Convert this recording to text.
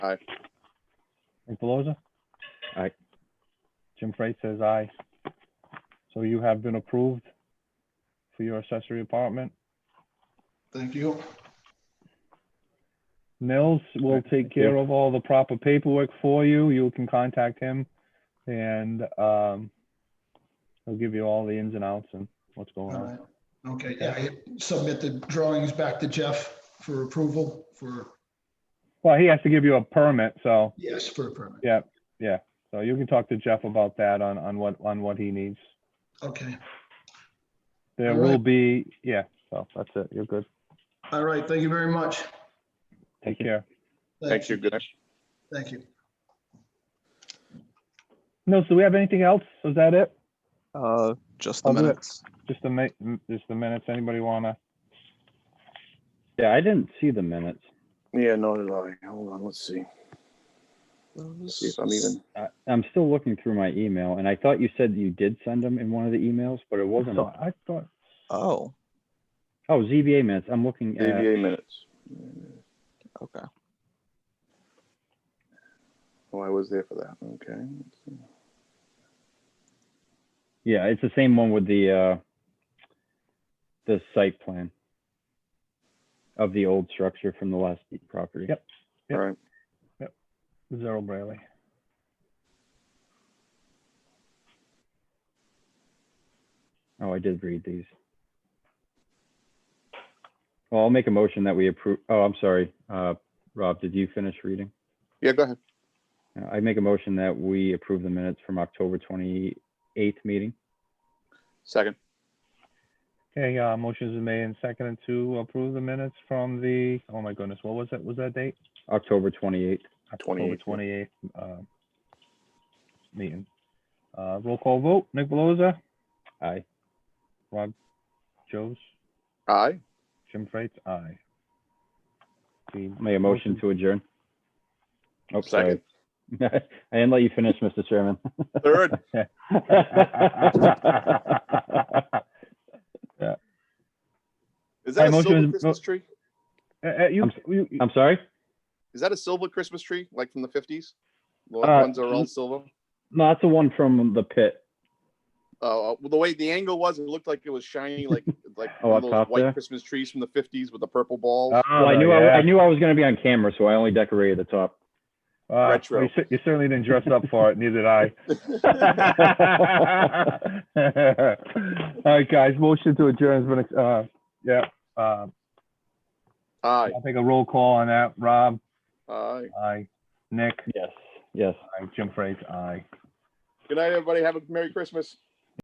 Aye. Frank Delosa? Aye. Jim Freight says aye. So you have been approved for your accessory apartment. Thank you. Nils will Alright, take thank you. care of all the proper paperwork for you. You can contact him and um, he'll give you all the ins and outs and what's going All on. right. Okay, yeah, I submit the drawings back to Jeff for approval for, Well, he has to give you a permit, so, yes, for a permit. so you can talk to Jeff about that on, on what, on what he needs. Okay. There Alright. will be, yeah, so that's it. You're good. All right, thank you very much. Take care. Thanks, you're good. Thank you. Nils, do we have anything else? Is that it? Uh, just the I'll do it. minutes. Just the ma, just the minutes. Anybody wanna? Yeah, I didn't see the minutes. Yeah, no, did I. Hold on, let's see. See if I'm even, I, I'm still looking through my email, and I thought you said you did send them in one of the emails, but it wasn't. So I thought, Oh, Oh, ZBA minutes. I'm looking at. ABA minutes. okay. Oh, I was there for that. Okay. let's see. Yeah, it's the same one with the uh, the site plan of the old structure from the last property. Yep. All right. Zero Brayley. Oh, I did read these. Well, I'll make a motion that we approve. Oh, I'm sorry. Uh, Rob, did you finish reading? Yeah, go ahead. Uh, I make a motion that we approve the minutes from October 28th meeting. Second. Okay, uh, motions are made and seconded to approve the minutes from the, oh my goodness, what was that, was that date? October 28th. October 28th. twenty-eighth, uh, meeting. Uh, roll call vote, Nick Velozza, Aye. Rob Joes, Aye. Jim Freights, aye. The- Make a motion to adjourn. Oh, sorry. Second. I didn't let you finish, Mr. Chairman. Third. Uh, Is Hey, that a motion silver is- Christmas tree? Uh, uh, you, you, you- I'm sorry? Is that a silver Christmas tree, like from the fifties? The Uh, ones that are all silver? No, that's the one from the pit. Uh, uh, well, the way the angle was, it looked like it was shiny, like, like Oh, one up of those top white there? Uh, Christmas trees from the fifties with the purple balls. Ah, Well, I knew, I yeah. I knew I was gonna be on camera, so I only decorated the top. Uh, well, Retro. You cer- you certainly didn't dress up for it, neither did I. All right, guys, motion to adjourn has been, uh, yeah, uh, Aye, I'll take a roll call on that. Rob, aye. aye. Nick, Yes, yes. aye. Jim Freights, aye. Good night, everybody. Have a Merry Christmas.